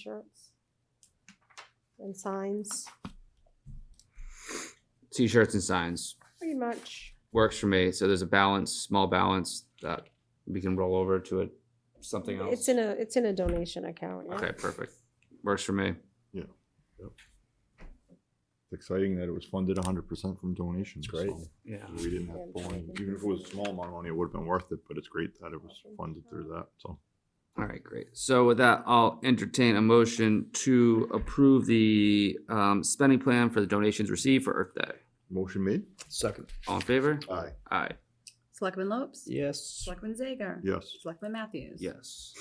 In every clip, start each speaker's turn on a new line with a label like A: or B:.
A: T-shirts and signs,
B: T-shirts and signs
A: pretty much.
B: works for me. So there's a balance, small balance that we can roll over to a something else.
A: It's in a, it's in a donation account. yeah.
B: okay, perfect. Works for me.
C: It's exciting that it was funded hundred percent from donations.
D: It's great.
C: so
B: Yeah.
C: We didn't have to pull any, even if it was a small amount of money, it would have been worth it, but it's great that it was funded through that, so.
B: All right, great. So with that, I'll entertain a motion to approve the um, spending plan for the donations received for Earth Day.
C: Motion made?
D: Second.
B: All in favor?
C: Aye.
B: Aye.
E: Selectman Lopes?
D: Yes.
E: Selectman Zager?
C: Yes.
E: Selectman Matthews?
B: Yes.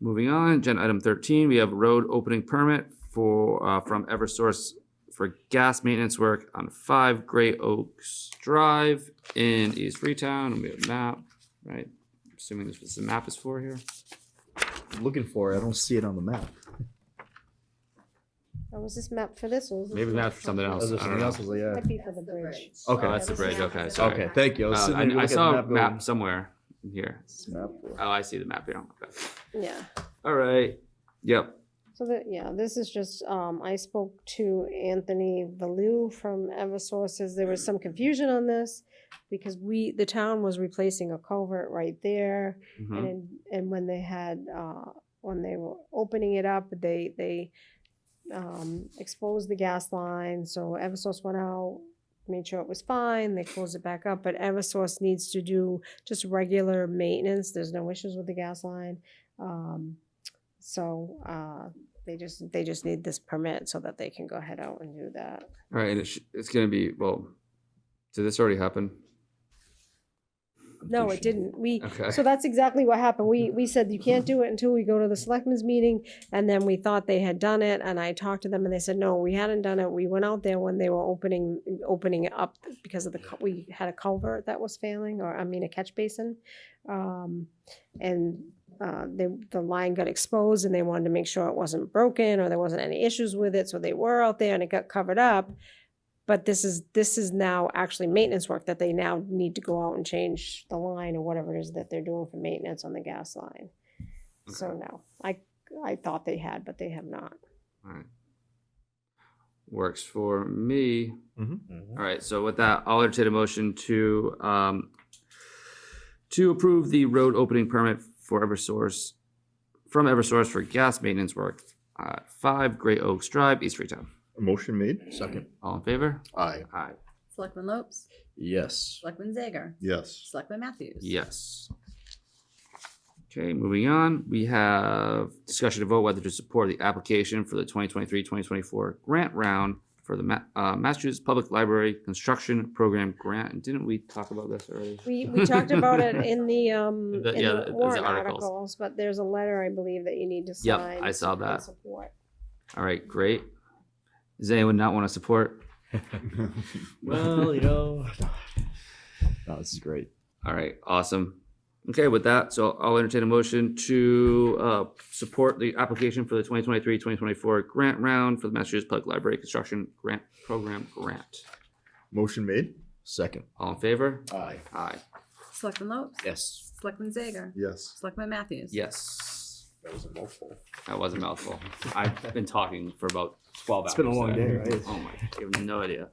B: Moving on, agenda item thirteen, we have road opening permit for, uh, from Eversource for gas maintenance work on five Gray Oaks Drive in East Freetown, and we have a map, right? Assuming this is the map is for here.
D: Looking for it. I don't see it on the map.
A: Oh, was this map for this or was this?
B: Maybe map for something else.
D: Is there
B: I don't
D: something
B: know.
D: else? I was like, yeah.
A: Might be for the bridge.
B: Oh, that's the
E: This is
B: bridge, okay,
E: map.
B: sorry.
D: Okay, thank you. I was
B: Uh,
D: sitting
B: I
D: there
B: I
D: looking at
B: saw
D: the
B: a
D: map going,
B: map somewhere here.
D: "What's the map for?"
B: Oh, I see the map here. Okay.
A: Yeah.
B: All right, yep,
A: So that, yeah, this is just, um, I spoke to Anthony Valou from Eversources, there was some confusion on this. Because we, the town was replacing a culvert right there, and,
B: mhm,
A: in- and when they had, uh, when they were opening it up, they, they. Um, exposed the gas line, so Eversource went out, made sure it was fine, they closed it back up, but Eversource needs to do just regular maintenance, there's no issues with the gas line. Um, so, uh, they just, they just need this permit so that they can go ahead out and do that.
B: all right, and it's, it's gonna be, well, did this already happen?
A: No, it didn't, we,
B: Okay.
A: so that's exactly what happened, we, we said you can't do it until we go to the selectmen's meeting, and then we thought they had done it, and I talked to them, and they said, no, we hadn't done it, we went out there when they were opening, opening it up because of the, cul- we had a culvert that was failing, or, I mean, a catch basin. Um, and, uh, they, the line got exposed, and they wanted to make sure it wasn't broken, or there wasn't any issues with it, so they were out there, and it got covered up. But this is, this is now actually maintenance work that they now need to go out and change the line or whatever it is that they're doing for maintenance on the gas line. So
B: Okay.
A: no, I, I thought they had, but they have not.
B: Alright. Works for me.
C: Mm-hmm.
D: Mhm.
B: Alright, so with that, I'll entertain a motion to, um, to approve the road opening permit for Eversource, from Eversource for gas maintenance work at five Great Oaks Drive, East Freetown.
C: Motion made?
D: Second.
B: All in favor?
C: Aye.
B: Aye.
E: Selectman Lopes?
D: Yes.
E: Selectman Zager?
C: Yes.
E: Selectman Matthews?
B: Yes. Okay, moving on, we have discussion to vote whether to support the application for the 2023-2024 grant round for the Ma- uh, Massachusetts Public Library Construction Program Grant, and didn't we talk about this already?
A: We, we talked about it in the, um, in
B: The- yeah,
A: the
B: the- the
A: warrant
B: articles.
A: articles, but there's a letter, I believe, that you need to
B: Yep,
A: sign.
B: I saw
A: in
B: that.
A: Support.
B: All right, great. Does anyone not want to support?
D: Well, you know. No, Oh, this is great.
B: All right, awesome. Okay, with that, so I'll entertain a motion to uh, support the application for the 2023-2024 grant round for the Massachusetts Public Library Construction Grant Program Grant.
C: Motion made?
D: Second.
B: All in favor?
C: Aye.
B: Aye.
E: Selectman Lopes?
D: Yes.
E: Selectman Zager?
C: Yes.
E: Selectman Matthews?
B: Yes.
C: That was a mouthful.
B: That was a mouthful. I've been talking for about twelve hours.
D: It's been a long
B: so-
D: day, right?
B: Oh my, you have no idea.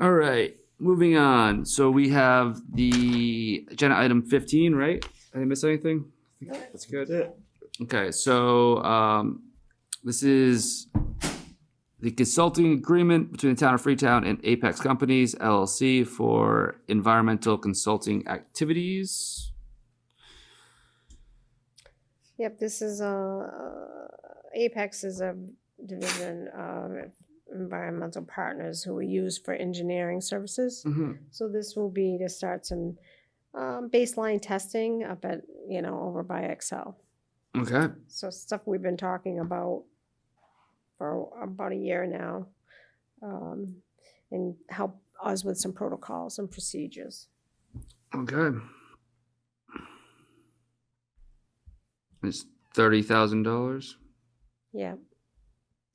B: All right, moving on. So we have the agenda item fifteen, right? Did I miss anything? That's good.
D: it.
B: Okay, so um, this is the consulting agreement between the town of Freetown and Apex Companies LLC for environmental consulting activities.
A: Yep, this is, uh, Apex is a division of environmental partners who we use for engineering services.
B: Hmm.
A: So this will be to start some um, baseline testing up at, you know, over by Excel.
B: Okay.
A: So stuff we've been talking about for about a year now. Um, and help us with some protocols and procedures.
B: Okay. It's thirty thousand dollars.
A: Yeah,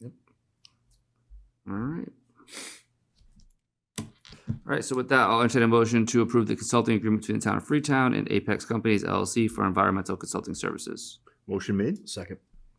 B: All right. All right. So with that, I'll entertain a motion to approve the consulting agreement between the town of Freetown and Apex Companies LLC for environmental consulting services.
F: Motion made,
C: Second.